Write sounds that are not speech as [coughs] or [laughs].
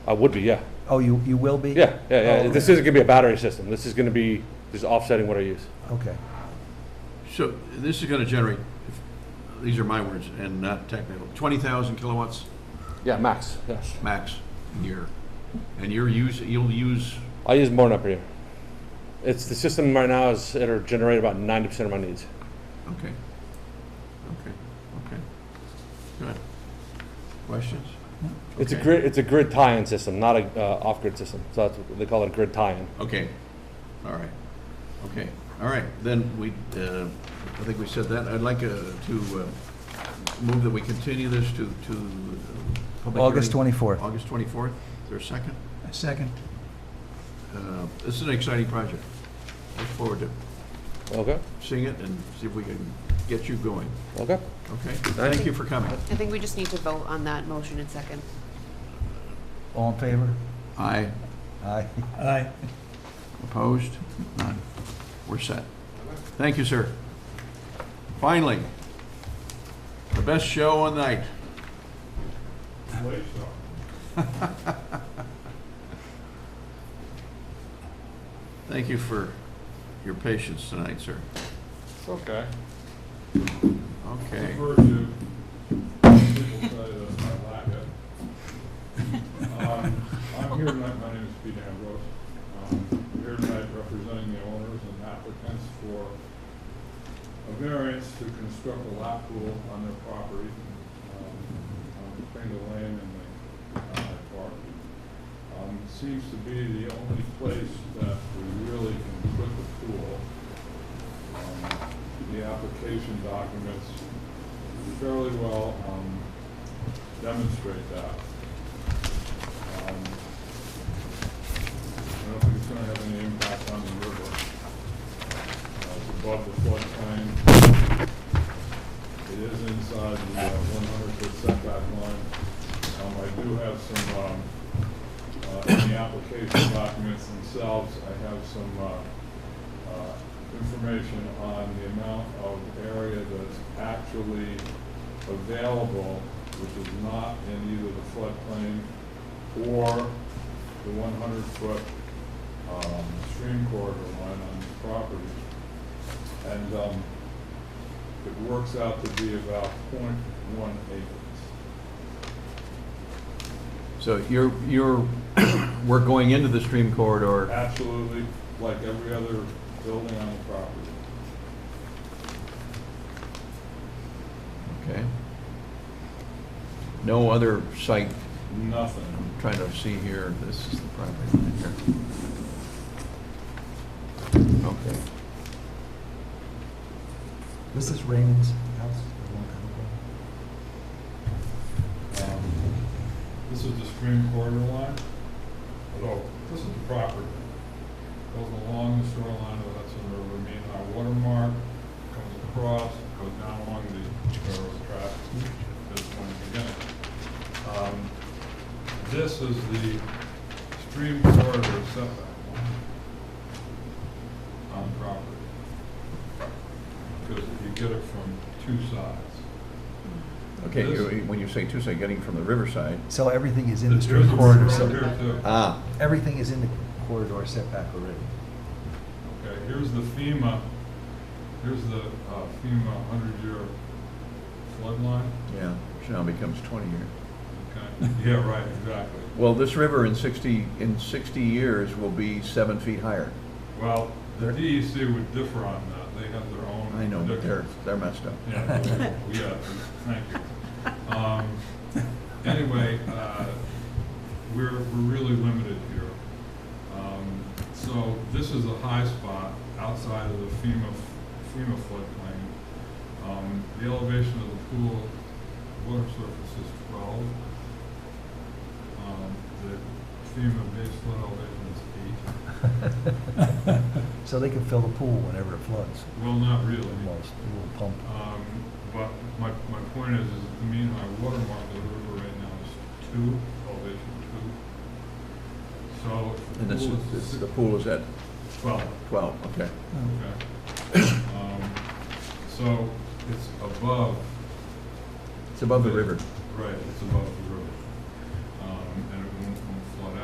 I would be, yeah. Oh, you, you will be? Yeah, yeah, yeah. Oh, This okay. isn't gonna be a battery system. This is gonna be, just offsetting what I use. Okay, So this is going to generate, if- these are my words and not technical, 20,000 kilowatts Yeah, max, yes. max a year. And you're use, you'll use, I use more than up here. It's, the system right now is, it'll generate about ninety percent of my needs. okay, okay, okay. Good. Questions? It's a Okay. grid, it's a grid tie-in system, not a, uh, off-grid system. So that's, what they call it a grid tie-in. Okay, all right, okay, all right, then we, uh, I think we said that, I'd like uh, to uh, move that we continue this to, to. uh, public August hearing. 24th. August 24th, is there a second? Second. Uh, This is an exciting project, look forward to Okay, seeing it and see if we can get you going, okay. okay? Thank you for coming. I think we just need to vote on that motion in second. all in favor? Aye, Aye. Aye. opposed, none, we're set. Thank you, sir. Finally, the best show on night. [laughs] Thank you for your patience tonight, sir. It's okay. Okay. Refer to, people say that's my lack of. Um, I'm here tonight, my name is Pete Ambrose. Um, I'm here tonight representing the owners and applicants for a variance to construct a lap pool on their property, um, on Pringle Lane and the uh, Park. Um, it Seems to be the only place that we really can put the pool. Um, The application documents fairly well um, demonstrate that. Um, I don't think it's going to have any impact on the river. Uh, It's above the floodplain. It is inside the uh, one hundred foot setback line. Um, I do have some, um, uh, in the application documents themselves, I have some, uh, uh, information on the amount of area that's actually available, which is not in either the floodplain or the one hundred foot, um, stream corridor line on the property. And, um, it works out to be about point one acres. So you're, you're, [coughs] we're going into the stream corridor. Absolutely, like every other building on the property. Okay. No other site, Nothing. I'm trying to see here, this is the property line here. Okay. Was this Raymond's house? the one that- Um, This is the stream corridor line. Hello. This is the property. Goes along the shoreline of the Hudson River, meeting our watermark, comes across, goes down along the railroad track at this point again. Um, This is the stream corridor setback line on property. Because you get it from two sides. Okay, This- you- when you say Tuesday, getting from the riverside, So everything is in the There's street a corridor road setback? here too. ah, Everything is in the corridor setback already. Okay, here's the FEMA, here's the uh, FEMA 100-year flood line, yeah, which now becomes 20 year. [laughs] okay? Yeah, right, exactly. Well, this river in 60, in 60 years will be seven feet higher. Well, the DEC would differ on that, they have their own. I know, but they're, predictions. they're messed up. Yeah, yeah, thank you. Um, [laughs] Anyway, uh, we're, we're really limited here. Um, So this is a high spot outside of the FEMA, f- FEMA floodplain. Um, The elevation of the pool water surface is 12. Um, The FEMA base flood elevation is 8. [laughs] So they can fill the pool whenever it floods, Well, not really. almost, a little pump. Um, But my, my point is, is the mean high water mark of the river right now is two, elevation two. So. if And this pool is, this- six- the pool is at Twelve, 12, okay. okay. Um, So it's above, It's above the river. right, it's above the river. Um,